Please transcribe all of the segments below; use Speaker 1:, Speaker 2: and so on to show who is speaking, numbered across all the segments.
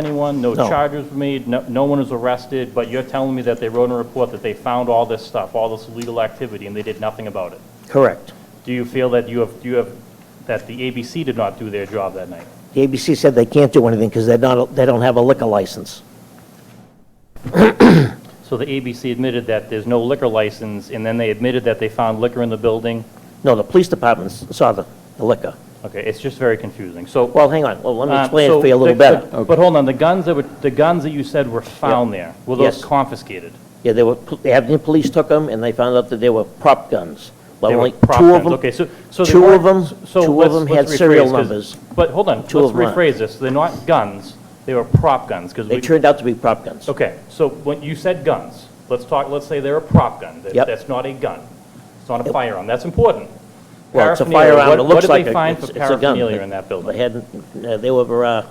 Speaker 1: anyone, no
Speaker 2: No.
Speaker 1: charges were made, no no one was arrested, but you're telling me that they wrote in a report that they found all this stuff, all this illegal activity, and they did nothing about it?
Speaker 2: Correct.
Speaker 1: Do you feel that you have, do you have, that the ABC did not do their job that night?
Speaker 2: The ABC said they can't do anything because they're not, they don't have a liquor license.
Speaker 1: So the ABC admitted that there's no liquor license, and then they admitted that they found liquor in the building?
Speaker 2: No, the police department s- saw the the liquor.
Speaker 1: Okay, it's just very confusing, so...
Speaker 2: Well, hang on, well, let me
Speaker 1: Uh,
Speaker 2: explain it
Speaker 1: so
Speaker 2: for you a little
Speaker 1: the- the-
Speaker 2: better.
Speaker 1: But hold on, the guns that were, the guns that you said were found there, were those
Speaker 2: Yes.
Speaker 1: confiscated?
Speaker 2: Yeah, they were, the Abington police took them, and they found out that they were prop guns. Well,
Speaker 1: They were
Speaker 2: only
Speaker 1: prop
Speaker 2: two of
Speaker 1: guns.
Speaker 2: them-
Speaker 1: Okay, so, so they
Speaker 2: two
Speaker 1: weren't-
Speaker 2: of them-
Speaker 1: so
Speaker 2: two of
Speaker 1: let's-
Speaker 2: them
Speaker 1: let's
Speaker 2: had serial
Speaker 1: rephrase 'cause-
Speaker 2: numbers.
Speaker 1: But hold on, let's
Speaker 2: Two of them aren't.
Speaker 1: rephrase this. They're not guns, they were prop guns, because
Speaker 2: They
Speaker 1: we,
Speaker 2: turned out to be prop guns.
Speaker 1: okay, so when you said guns, let's talk, let's say they're a prop gun. That-
Speaker 2: Yep.
Speaker 1: That's not a gun. It's not a firearm. That's important.
Speaker 2: Well, it's a
Speaker 1: Paraphernalia,
Speaker 2: firearm,
Speaker 1: what-
Speaker 2: it looks like
Speaker 1: What did they
Speaker 2: a-
Speaker 1: find
Speaker 2: it's-
Speaker 1: for
Speaker 2: it's a gun.
Speaker 1: paraphernalia in that
Speaker 2: They
Speaker 1: building?
Speaker 2: had, uh, they were, uh,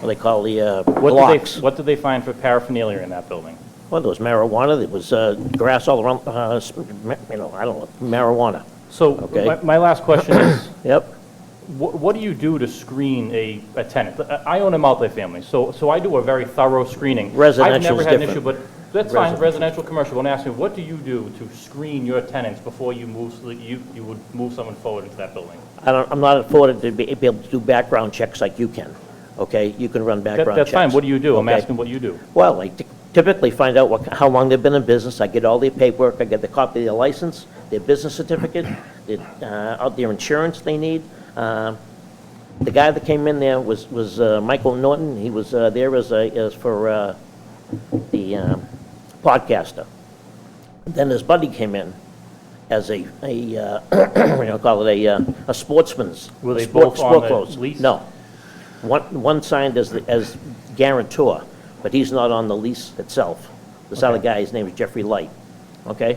Speaker 2: what they call the uh,
Speaker 1: What did they,
Speaker 2: blocks.
Speaker 1: what did they find for paraphernalia in that building?
Speaker 2: Well, there was marijuana, there was uh, grass all around, uh, s- ma- you know, I don't know, marijuana.
Speaker 1: So,
Speaker 2: Okay.
Speaker 1: my, my last question is,
Speaker 2: Yep.
Speaker 1: What, what do you do to screen a, a tenant? I I own a multifamily, so, so I do a very thorough screening. I've never
Speaker 2: Residential's
Speaker 1: had an issue,
Speaker 2: different.
Speaker 1: but that's fine, residential, commercial, but I'm asking, what do you do to screen your tenants before you move, so that you, you would move someone forward into that building?
Speaker 2: I don't, I'm not afforded to be be able to do background checks like you can, okay? You can run
Speaker 1: That,
Speaker 2: background
Speaker 1: that's
Speaker 2: checks.
Speaker 1: fine, what do you do? I'm
Speaker 2: Okay.
Speaker 1: asking what you do.
Speaker 2: Well, I ty- typically find out what, how long they've been in business, I get all their paperwork, I get the copy of their license, their business certificate, their, uh, out their insurance they need. Um, The guy that came in there was, was uh, Michael Norton, he was uh, there as a, as for uh, the um, podcaster. Then his buddy came in as a, a, uh, you know, call it a, uh, a sportsman's.
Speaker 1: Were they
Speaker 2: sport-
Speaker 1: both on
Speaker 2: sport
Speaker 1: the
Speaker 2: clothes.
Speaker 1: lease?
Speaker 2: No. One, one signed as, the- as guarantor, but he's not on the lease itself. This other guy, his name is Jeffrey Light, okay?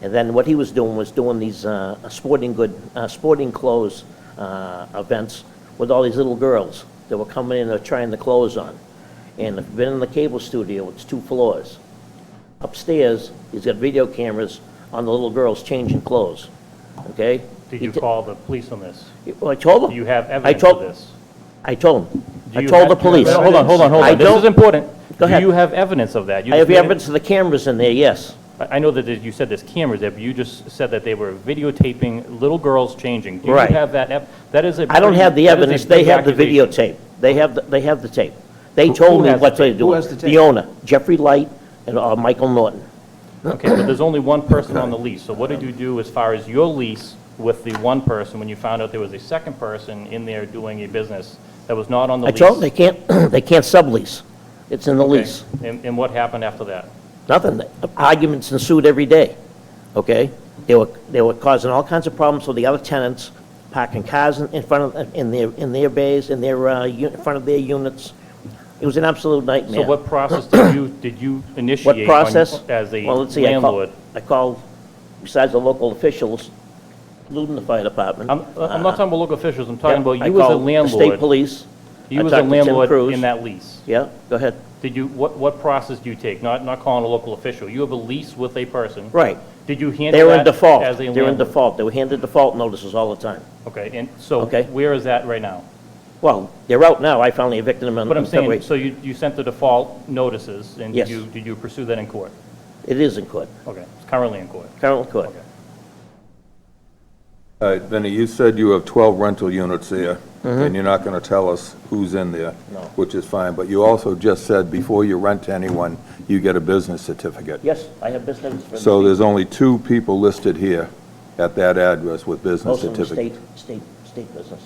Speaker 2: And then what he was doing was doing these uh, sporting good, uh, sporting clothes uh, events with all these little girls that were coming in and trying the clothes on. And if you've been in the cable studio, it's two floors. Upstairs, he's got video cameras on the little girls changing clothes, okay?
Speaker 1: Did
Speaker 2: He
Speaker 1: you
Speaker 2: t-
Speaker 1: call the police on this?
Speaker 2: Well, I told him.
Speaker 1: Do you have
Speaker 2: I
Speaker 1: evidence
Speaker 2: told-
Speaker 1: of this?
Speaker 2: I told him.
Speaker 1: Do
Speaker 2: I
Speaker 1: you
Speaker 2: told
Speaker 1: have-
Speaker 2: the
Speaker 1: do you
Speaker 2: police.
Speaker 1: have Hold on, hold on, hold
Speaker 2: I
Speaker 1: on, this is
Speaker 2: don't-
Speaker 1: important.
Speaker 2: Go
Speaker 1: Do
Speaker 2: ahead.
Speaker 1: you have evidence of that? You
Speaker 2: I
Speaker 1: just
Speaker 2: have
Speaker 1: made it-
Speaker 2: evidence of the cameras in there, yes.
Speaker 1: I I know that you said there's cameras there, but you just said that they were videotaping little girls changing.
Speaker 2: Right.
Speaker 1: Do you have that, ev- that is a...
Speaker 2: I don't have the
Speaker 1: that is a
Speaker 2: evidence, they
Speaker 1: big
Speaker 2: have the
Speaker 1: accusation.
Speaker 2: videotape. They have, the- they have the tape. They told
Speaker 1: who
Speaker 2: me
Speaker 1: has
Speaker 2: what
Speaker 1: the
Speaker 2: they
Speaker 1: tape?
Speaker 2: do.
Speaker 3: Who has the tape?
Speaker 2: The owner, Jeffrey Light and uh, Michael Norton.
Speaker 1: Okay, but there's only one person on the lease, so what did you do as far as your lease with the one person when you found out there was a second person in there doing a business that was not on the
Speaker 2: I
Speaker 1: lease?
Speaker 2: told them they can't, they can't sublease. It's in the
Speaker 1: Okay,
Speaker 2: lease.
Speaker 1: And and what happened after that?
Speaker 2: Nothing. Arguments ensued every day, okay? They were, they were causing all kinds of problems with the other tenants, parking cars in in front of, in their, in their bays, in their, uh, u- in front of their units. It was an absolute nightmare.
Speaker 1: So what process did you, did you initiate? on-
Speaker 2: What process?
Speaker 1: As a
Speaker 2: Well, let's see, I call-
Speaker 1: landlord?
Speaker 2: I called, besides the local officials, including the fire department.
Speaker 1: I'm I'm not talking about local officials, I'm talking about
Speaker 2: I
Speaker 1: you as a
Speaker 2: called the state
Speaker 1: landlord.
Speaker 2: police. I
Speaker 1: You as a
Speaker 2: talked to Tim
Speaker 1: landlord
Speaker 2: Cruz.
Speaker 1: in that lease.
Speaker 2: Yeah, go ahead.
Speaker 1: Did you, what, what process do you take? Not, not calling a local official. You have a lease with a person.
Speaker 2: Right.
Speaker 1: Did you handle
Speaker 2: They were in
Speaker 1: that as a
Speaker 2: default.
Speaker 1: landlord?
Speaker 2: They were in default. They were handed default notices all the time.
Speaker 1: Okay, and so
Speaker 2: Okay.
Speaker 1: where is that right now?
Speaker 2: Well, they're out now. I finally evicted them in
Speaker 1: But I'm
Speaker 2: in February.
Speaker 1: saying, so you, you sent the default notices, and did
Speaker 2: Yes.
Speaker 1: you, did you pursue that in court?
Speaker 2: It is in court,
Speaker 1: Okay, it's currently in court.
Speaker 2: currently court.
Speaker 1: Okay.
Speaker 3: All right, Vinnie, Uh, you said you have 12 rental units there, and you're not going to tell us who's in there.
Speaker 2: No.
Speaker 3: Which is fine, but you also just said before you rent to anyone, you get a business certificate.
Speaker 2: Yes, I have business. for-
Speaker 3: So there's only two people listed here at that address with business
Speaker 2: Most of them
Speaker 3: certificate.
Speaker 2: state, state, state businesses.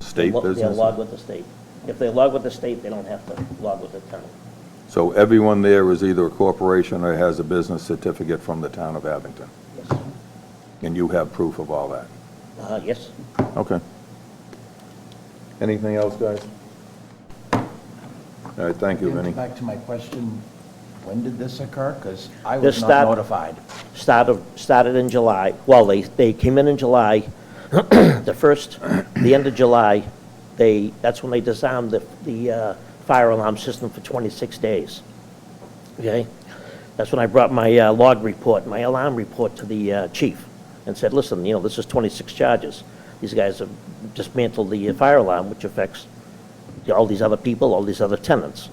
Speaker 3: State
Speaker 2: Lo- They're
Speaker 3: business.
Speaker 2: logged with the state. If they log with the state, they don't have to log with the town.
Speaker 3: So everyone there is either a corporation or has a business certificate from the town of Abington,
Speaker 2: Yes.
Speaker 3: and you have proof of all that.
Speaker 2: Uh, yes.
Speaker 3: Okay. Anything else, guys? All right, thank you, Vinnie.
Speaker 4: Getting back to my question, when did this occur? Because I
Speaker 2: This
Speaker 4: was not
Speaker 2: start-
Speaker 4: notified.
Speaker 2: started, started in July, well, they, they came in in July, the first, the end of July, they, that's when they disarmed the, the uh, fire alarm system for 26 days, okay? That's when I brought my uh, log report, my alarm report to the uh, chief, and said, listen, you know, this is 26 charges. These guys have dismantled the fire alarm, which affects all these other people, all these other tenants.